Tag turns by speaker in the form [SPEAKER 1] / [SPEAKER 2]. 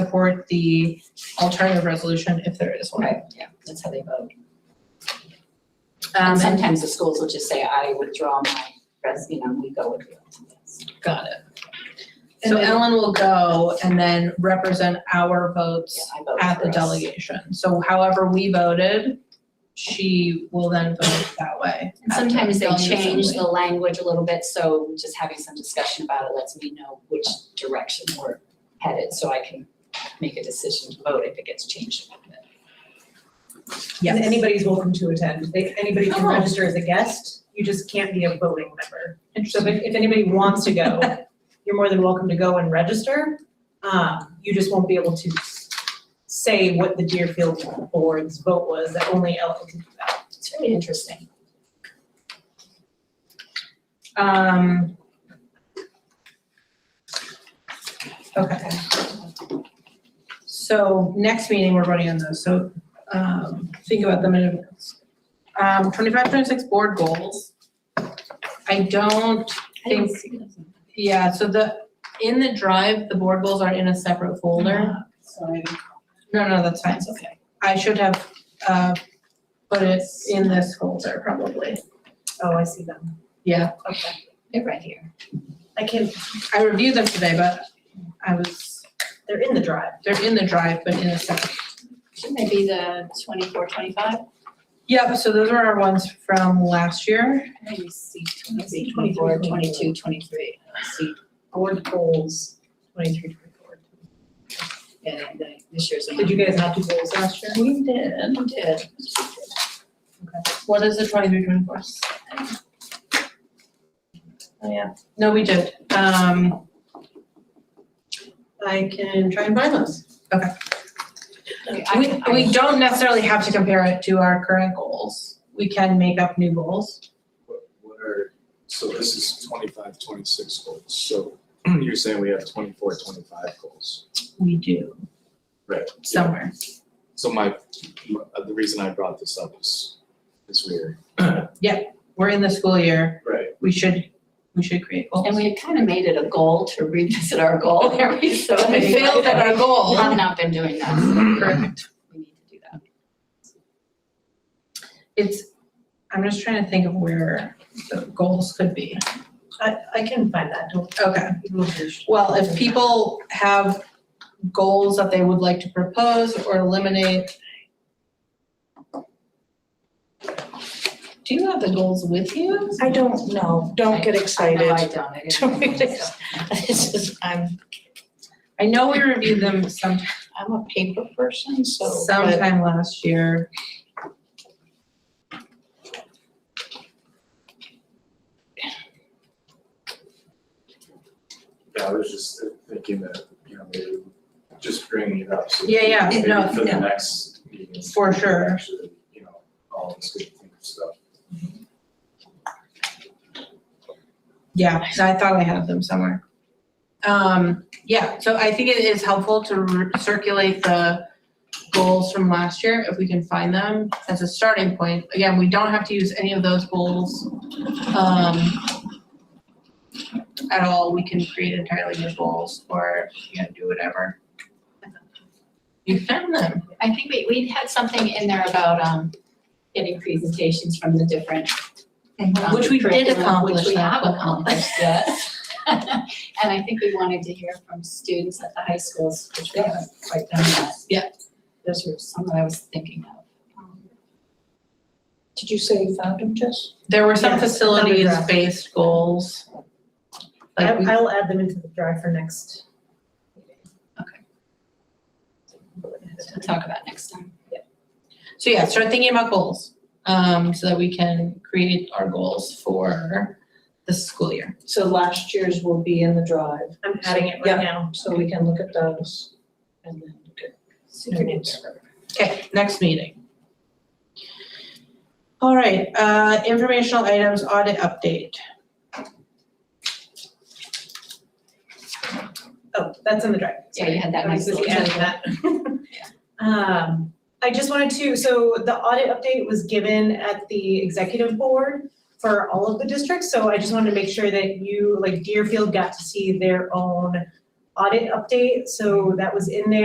[SPEAKER 1] support the alternative resolution if there is one.
[SPEAKER 2] Right, yeah, that's how they vote.
[SPEAKER 1] Um,
[SPEAKER 2] And
[SPEAKER 1] and,
[SPEAKER 2] sometimes the schools will just say, I withdraw my, res-" you know, we go with you.
[SPEAKER 1] got it.
[SPEAKER 2] So-
[SPEAKER 1] So Ellen will go and then represent our
[SPEAKER 2] Yeah,
[SPEAKER 1] votes
[SPEAKER 2] I vote
[SPEAKER 1] at the
[SPEAKER 2] for us.
[SPEAKER 1] delegation. So however we voted, she will then vote that way.
[SPEAKER 2] And
[SPEAKER 1] at the
[SPEAKER 2] sometimes they
[SPEAKER 1] delegate
[SPEAKER 2] change
[SPEAKER 1] assembly.
[SPEAKER 2] the language a little bit, so just having some discussion about it lets me know which direction we're headed, so I can make a decision to vote if it gets changed a little bit.
[SPEAKER 3] And
[SPEAKER 1] Yes,
[SPEAKER 3] anybody's welcome to attend. They, anybody can
[SPEAKER 1] Oh.
[SPEAKER 3] register as a guest, you just can't be a voting member. So if, if anybody wants to go, you're more than welcome to go and register. Um, you just won't be able to s- say what the Deerfield Board's vote was, that only Ellen can do that.
[SPEAKER 2] It's really interesting.
[SPEAKER 1] um. Okay. So next meeting, we're voting on those, so, um, think about them in advance. Um, twenty-five, twenty-six board goals. I don't
[SPEAKER 2] I didn't
[SPEAKER 1] Think-
[SPEAKER 2] see this.
[SPEAKER 1] Yeah, so the, in the drive, the board goals are in a separate folder.
[SPEAKER 2] Sorry.
[SPEAKER 1] No, no, that's fine, it's okay. I should have, uh, put it in this folder probably.
[SPEAKER 3] Oh, I see them.
[SPEAKER 1] Yeah,
[SPEAKER 3] Okay.
[SPEAKER 2] They're right here.
[SPEAKER 3] I can,
[SPEAKER 1] I reviewed them today, but I was,
[SPEAKER 3] they're in the drive.
[SPEAKER 1] they're in the drive, but in a separate.
[SPEAKER 2] Shouldn't they be the twenty-four, twenty-five?
[SPEAKER 1] Yep, so those are our ones from last year.
[SPEAKER 2] I maybe see
[SPEAKER 3] I see
[SPEAKER 2] 24,
[SPEAKER 3] 23.
[SPEAKER 2] 22, 23. I see,
[SPEAKER 3] Board goals, twenty-three, twenty-four.
[SPEAKER 2] yeah, the- uh, this year's.
[SPEAKER 3] Did you guys not do goals last year?
[SPEAKER 1] We did.
[SPEAKER 2] I did.
[SPEAKER 1] What is the twenty-three, twenty-four? Oh, yeah. No, we did. Um,
[SPEAKER 3] I can try and find those.
[SPEAKER 1] We, we don't necessarily have to compare it to our current goals. We can make up new goals.
[SPEAKER 4] What what are, so this is 25, 26 goals, so you're saying we have 24, 25 goals?
[SPEAKER 1] We do.
[SPEAKER 4] Right.
[SPEAKER 1] Somewhere.
[SPEAKER 4] So my, my- uh, the reason I brought this up is, is we're.
[SPEAKER 1] We're in the school year.
[SPEAKER 4] Right.
[SPEAKER 1] We should, we should create goals.
[SPEAKER 2] And we had kind of made it a goal to revisit our goal every so
[SPEAKER 1] We
[SPEAKER 2] many.
[SPEAKER 1] failed at our
[SPEAKER 2] We
[SPEAKER 1] goal.
[SPEAKER 2] have not been doing that.
[SPEAKER 1] Correct.
[SPEAKER 2] We need to do that.
[SPEAKER 1] It's, I'm just trying to think of where the goals could be.
[SPEAKER 3] I, I can find that. Don't-
[SPEAKER 1] Okay.
[SPEAKER 3] you won't be-
[SPEAKER 1] Well, if people have goals that they would like to propose or eliminate. Do you have the goals with you?
[SPEAKER 5] I don't know, don't get
[SPEAKER 2] No, I
[SPEAKER 5] excited.
[SPEAKER 2] don't. I didn't
[SPEAKER 5] Don't
[SPEAKER 2] think
[SPEAKER 5] read it.
[SPEAKER 2] so.
[SPEAKER 5] This is, I'm,
[SPEAKER 1] I know we reviewed them sometime
[SPEAKER 5] I'm a paper person, so, but
[SPEAKER 1] sometime last year.
[SPEAKER 4] Yeah, I was just thinking that, you know, maybe just bringing it up. so
[SPEAKER 1] Yeah, yeah,
[SPEAKER 4] Maybe
[SPEAKER 1] no,
[SPEAKER 4] for
[SPEAKER 1] yeah.
[SPEAKER 4] the next meeting.
[SPEAKER 1] For sure.
[SPEAKER 4] Actually, you know, all this good stuff.
[SPEAKER 1] Yeah, so I thought I had them somewhere. Um, yeah, so I think it is helpful to re- circulate the goals from last year if we can find them as a starting point. Again, we don't have to use any of those goals, um, at all. We can create entirely new goals or, you know, do whatever. You found them.
[SPEAKER 2] I think we, we had something in there about, um, getting presentations from the different. um,
[SPEAKER 1] Which we did
[SPEAKER 2] curriculum,
[SPEAKER 1] accomplish
[SPEAKER 2] Which we
[SPEAKER 1] that
[SPEAKER 2] have
[SPEAKER 1] goal.
[SPEAKER 2] accomplished, yes. And I think we wanted to hear from students at the high schools, which we haven't quite done yet.
[SPEAKER 1] Yeah.
[SPEAKER 2] Those were some that I was thinking of. Um,
[SPEAKER 5] did you say you found them, Jess?
[SPEAKER 1] There were some
[SPEAKER 3] Yes, draft.
[SPEAKER 1] facilities-based goals.
[SPEAKER 3] I,
[SPEAKER 1] Like we
[SPEAKER 3] I'll add them into the drive for next.
[SPEAKER 2] Okay. We'll talk about next time.
[SPEAKER 1] So yeah, start thinking about goals, um, so that we can create our goals for the school year.
[SPEAKER 5] So last year's will be in the drive,
[SPEAKER 3] I'm adding it
[SPEAKER 5] Yeah.
[SPEAKER 3] right now.
[SPEAKER 5] so we can look at those and then look at
[SPEAKER 2] Super duper.
[SPEAKER 1] Okay, next meeting. All right, uh, informational items audit update.
[SPEAKER 3] Oh, that's in the drive.
[SPEAKER 2] Yeah, you had that
[SPEAKER 3] I
[SPEAKER 2] nice
[SPEAKER 3] was
[SPEAKER 2] little.
[SPEAKER 3] just adding that. Um, I just wanted to, so the audit update was given at the executive board for all of the districts, so I just wanted to make sure that you, like Deerfield got to see their own audit update, so that was in there.